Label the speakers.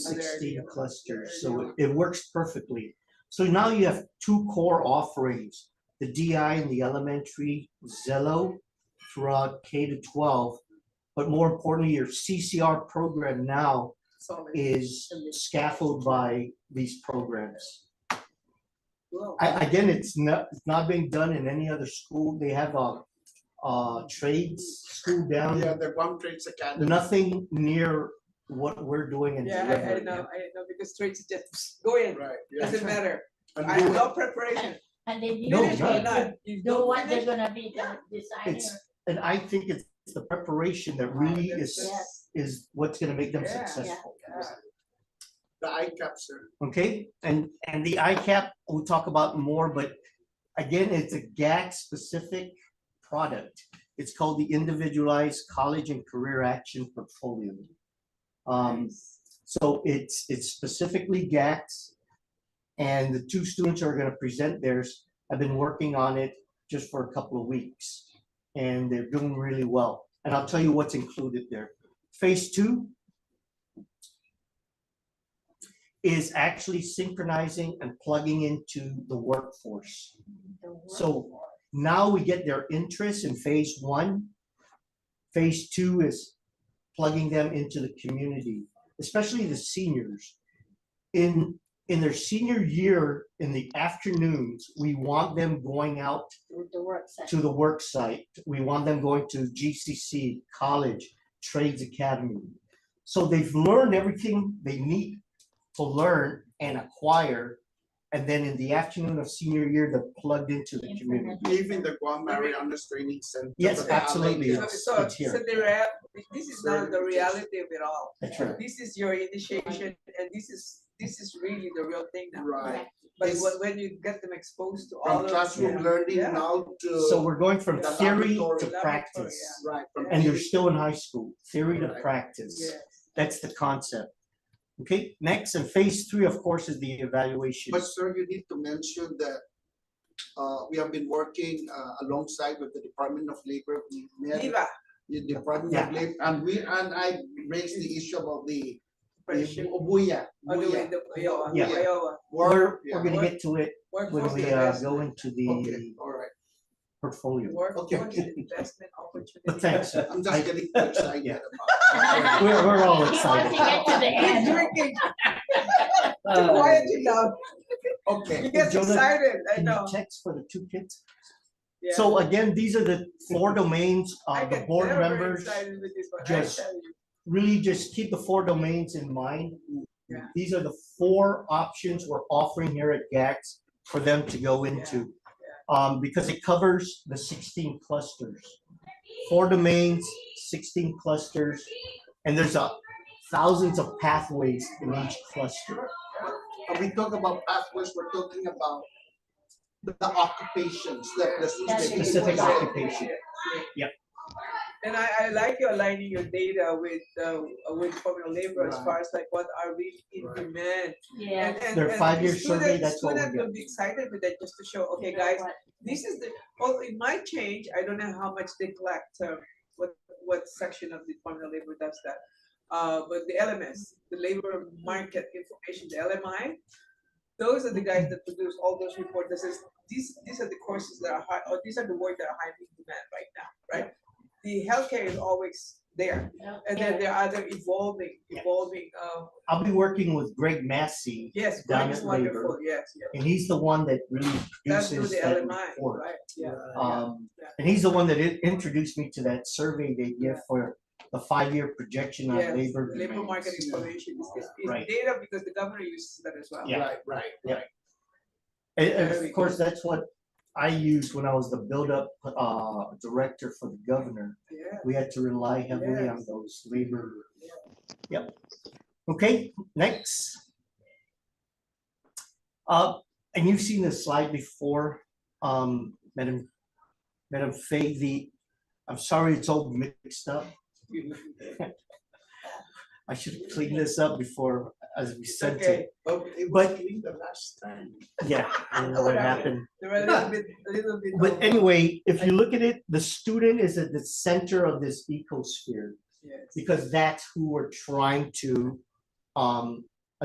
Speaker 1: sixteen clusters, so it- it works perfectly. So now you have two core offerings, the DI and the elementary, Zello throughout K to twelve. But more importantly, your CCR program now is scaffolded by these programs. I, again, it's not, it's not being done in any other school. They have a, a trades school
Speaker 2: Yeah,
Speaker 1: down.
Speaker 2: the Guam Trades Academy.
Speaker 1: Nothing near what we're doing in
Speaker 3: Yeah, I, I
Speaker 1: Denver.
Speaker 3: know, I know, because straight is just go in,
Speaker 2: Right, yeah.
Speaker 3: doesn't matter,
Speaker 2: And
Speaker 3: I have
Speaker 2: do it.
Speaker 3: no preparation,
Speaker 4: And they
Speaker 1: No,
Speaker 4: didn't
Speaker 3: finish or
Speaker 1: none.
Speaker 3: not, you
Speaker 4: do
Speaker 3: don't
Speaker 4: what they're
Speaker 3: finish.
Speaker 4: gonna be the designer.
Speaker 1: It's- And I think it's it's the preparation that really is,
Speaker 4: Yes.
Speaker 1: is what's gonna make them
Speaker 3: Yeah, yeah.
Speaker 1: successful.
Speaker 3: Yeah.
Speaker 2: The ICAP, sir.
Speaker 1: Okay, and, and the ICAP, we'll talk about more, but again, it's a GAC-specific product. It's called the Individualized College and Career Action Portfolio. Um, so it's, it's specifically GACs. And the two students who are gonna present theirs. I've been working on it just for a couple of weeks. And they're doing really well. And I'll tell you what's included there. Phase two is actually synchronizing and plugging into the workforce. So now we get their interest in phase one. Phase two is plugging them into the community, especially the seniors. In, in their senior year, in the afternoons, we want them going out
Speaker 4: With the work session.
Speaker 1: to the work site. We want them going to GCC, college, trades academy. So they've learned everything they need to learn and acquire. And then in the afternoon of senior year, they're plugged into the community.
Speaker 2: Even the Guam Marianas Training Center.
Speaker 1: Yes,
Speaker 2: that they have,
Speaker 1: absolutely.
Speaker 2: yeah.
Speaker 3: So,
Speaker 1: It's-
Speaker 3: so,
Speaker 1: it's here.
Speaker 3: so the rea- this is not the
Speaker 2: Sorry.
Speaker 3: reality of it all,
Speaker 1: That's right.
Speaker 3: this is your initiation, and this is, this is really the real thing now.
Speaker 2: Right,
Speaker 3: But
Speaker 2: It's-
Speaker 3: when, when you get them exposed to all
Speaker 2: from
Speaker 3: of.
Speaker 2: classroom
Speaker 3: yeah.
Speaker 2: learning
Speaker 3: Yeah.
Speaker 2: now
Speaker 1: So
Speaker 2: to,
Speaker 1: we're going from
Speaker 2: The
Speaker 1: theory
Speaker 2: laboratory.
Speaker 1: to practice.
Speaker 2: right, from
Speaker 1: And they're
Speaker 2: theory-
Speaker 1: still in high school, theory to
Speaker 2: Right.
Speaker 1: practice.
Speaker 3: Yes.
Speaker 1: That's the concept. Okay, next, and phase three, of course, is the evaluation.
Speaker 2: But sir, you need to mention that uh, we have been working uh, alongside with the Department of Labor. We met
Speaker 3: Viva,
Speaker 2: The Department of Labor, and we, and I raised the issue about the, the
Speaker 3: friendship,
Speaker 2: Buya,
Speaker 3: all Oh, the way
Speaker 2: Buya.
Speaker 3: to Iowa,
Speaker 1: Yeah.
Speaker 3: Iowa,
Speaker 1: We're,
Speaker 2: yeah.
Speaker 1: we're gonna get to it when
Speaker 3: workforce
Speaker 1: we uh, go
Speaker 3: investment,
Speaker 1: into
Speaker 2: Okay,
Speaker 1: the
Speaker 2: all right,
Speaker 1: portfolio.
Speaker 2: Okay.
Speaker 3: workforce investment opportunity.
Speaker 1: But thanks.
Speaker 2: I'm just
Speaker 1: I-
Speaker 2: getting too excited
Speaker 1: Yeah.
Speaker 2: about. it.
Speaker 1: We're, we're all
Speaker 4: He wants to
Speaker 1: excited.
Speaker 4: get to the
Speaker 3: He's
Speaker 4: end.
Speaker 3: drinking,
Speaker 1: Uh,
Speaker 3: quiet it down,
Speaker 2: Okay.
Speaker 3: he gets
Speaker 1: Jonah,
Speaker 3: excited, I
Speaker 1: Can you
Speaker 3: know,
Speaker 1: text for the two kids?
Speaker 3: yeah.
Speaker 1: So again, these are the four domains
Speaker 3: I
Speaker 1: of the
Speaker 3: get
Speaker 1: board
Speaker 3: very
Speaker 1: members.
Speaker 3: excited with this one, I
Speaker 1: just-
Speaker 3: tell you.
Speaker 1: Really just keep the four domains in mind.
Speaker 3: Yeah.
Speaker 1: These are the four options we're offering here at GAX for them to go into. Um, because it covers the sixteen clusters. Four domains, sixteen clusters, and there's a thousands of pathways in each cluster.
Speaker 2: When we talk about pathways, we're talking about the the occupations, the, the.
Speaker 1: Specific occupation.
Speaker 3: And I, I like you aligning your data with, uh, with formal labor as
Speaker 2: Right.
Speaker 3: far as like what are really in
Speaker 2: Right.
Speaker 3: demand.
Speaker 4: Yeah.
Speaker 3: And- and-
Speaker 1: Their
Speaker 3: and
Speaker 1: five-year
Speaker 3: student-
Speaker 1: survey, that's what we
Speaker 3: Student
Speaker 1: get.
Speaker 3: will be excited with that, just to show, okay, guys, this is the, well, it might change, I don't know how much they collect, uh, what, what section of the Department of Labor does that. Uh, but the LMS, the labor market information, the LMI, those are the guys that produce all those reports, that says, these, these are the courses that are high, or these are the work that are high in demand right now, right? The healthcare is always there, and then there are other evolving,
Speaker 1: Yeah.
Speaker 3: evolving, uh,
Speaker 1: I'll be working with Greg Massey,
Speaker 3: yes,
Speaker 1: Down
Speaker 3: Greg is
Speaker 1: at labor.
Speaker 3: wonderful, yes, yes.
Speaker 1: and he's the one that really
Speaker 3: That's through
Speaker 1: produces
Speaker 3: the
Speaker 1: that
Speaker 3: LMI,
Speaker 1: report.
Speaker 3: right, yeah.
Speaker 1: Um,
Speaker 3: Yeah.
Speaker 1: and he's the one that i- introduced me to that survey they give
Speaker 3: Yeah.
Speaker 1: for the five-year projection on
Speaker 3: Yes,
Speaker 1: labor.
Speaker 3: labor market
Speaker 1: demands.
Speaker 3: information is, is
Speaker 1: Right.
Speaker 3: is data because the governor uses that as well.
Speaker 1: Yeah.
Speaker 2: Right, right, right.
Speaker 1: And- and
Speaker 3: Very
Speaker 1: of course, that's what I used when I was the build-up, uh, director for the governor.
Speaker 3: Yeah,
Speaker 1: We had to rely heavily on
Speaker 3: Yes.
Speaker 1: those labor. Yep. Okay, next. Uh, and you've seen this slide before, um, Madam, Madam Fay, the, I'm sorry, it's all mixed up. I should clean this up before, as we
Speaker 3: It's
Speaker 1: sent
Speaker 3: okay.
Speaker 1: it.
Speaker 2: But it was
Speaker 1: But-
Speaker 2: clean the last time.
Speaker 1: Yeah, I don't know what happened.
Speaker 3: There are a little bit, a little bit.
Speaker 1: But
Speaker 3: of-
Speaker 1: anyway, if you look at it, the student is at the center of this ecosphere
Speaker 3: Yes.
Speaker 1: because that's who we're trying to um,